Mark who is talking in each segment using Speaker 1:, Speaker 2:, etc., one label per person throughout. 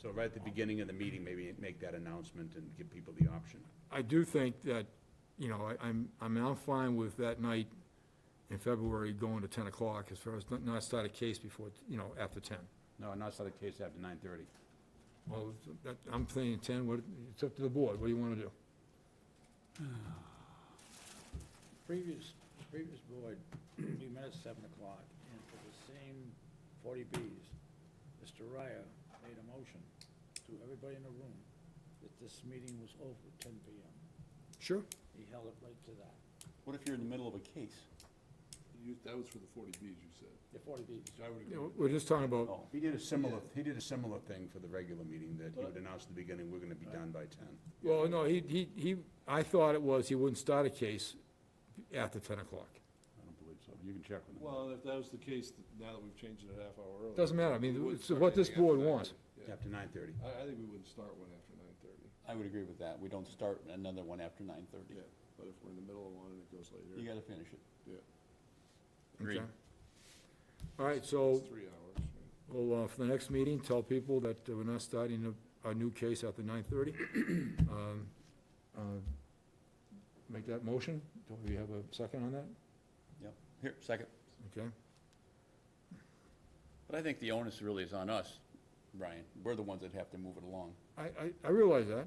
Speaker 1: So right at the beginning of the meeting, maybe make that announcement and give people the option.
Speaker 2: I do think that, you know, I- I'm, I'm now fine with that night in February going to 10 o'clock as far as not- not start a case before, you know, after 10.
Speaker 1: No, not start the case after nine thirty.
Speaker 2: Well, that, I'm saying 10, what, it's up to the board, what do you want to do?
Speaker 3: Previous, previous board, we met at seven o'clock, and for the same forty Bs, Mr. Ryer made a motion to everybody in the room that this meeting was over at ten PM.
Speaker 2: Sure.
Speaker 3: He held it right to that,
Speaker 1: What if you're in the middle of a case?
Speaker 4: You, that was for the forty Bs you said,
Speaker 3: the forty Bs.
Speaker 4: which I would
Speaker 2: You
Speaker 4: agree
Speaker 2: know,
Speaker 4: with.
Speaker 2: We're just talking about,
Speaker 1: He did a similar, he did a similar thing for the regular meeting, that he would announce at the beginning, we're gonna be done by ten.
Speaker 2: well, no, he, he, he, I thought it was he wouldn't start a case after 10 o'clock.
Speaker 1: I don't believe so. You can check with him.
Speaker 4: Well, if that was the case, th- now that we've changed it a half hour earlier.
Speaker 2: Doesn't matter, I
Speaker 4: we
Speaker 2: mean,
Speaker 4: wouldn't
Speaker 2: it's
Speaker 4: start
Speaker 2: what this
Speaker 4: anything after
Speaker 2: board
Speaker 4: 9:30.
Speaker 2: wants.
Speaker 4: Yeah.
Speaker 1: After nine thirty.
Speaker 4: I, I think we wouldn't start one after nine thirty,
Speaker 5: I would agree with that. We don't start another one after nine thirty.
Speaker 4: yeah, but if we're in the middle of one and it goes
Speaker 5: You
Speaker 4: later,
Speaker 5: gotta finish it.
Speaker 4: yeah,
Speaker 5: Agreed.
Speaker 2: Okay. All right, so
Speaker 4: it's three hours. right?
Speaker 2: Well, uh, for the next meeting, tell people that uh, we're not starting a, a new case after nine thirty. Um, uh, Make that motion. Do we have a second on that?
Speaker 5: Here, second.
Speaker 2: Okay.
Speaker 5: But I think the onus really is on us, Brian. We're the ones that have to move it along.
Speaker 2: I, I, I realize that.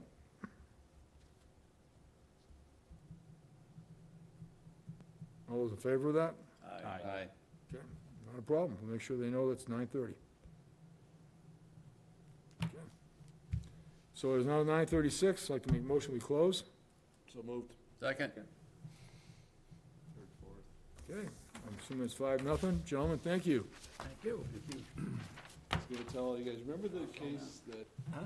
Speaker 2: All those in favor of that?
Speaker 5: Aye.
Speaker 2: Okay, not a problem. We'll make sure they know it's nine thirty. So it's now nine thirty-six. I'd like to make a motion, we close.
Speaker 4: So moved,
Speaker 5: Second.
Speaker 4: third, fourth.
Speaker 2: Okay, I'm assuming it's five, nothing. Gentlemen, thank you.
Speaker 3: Thank you.
Speaker 4: I was gonna tell you guys, remember the case that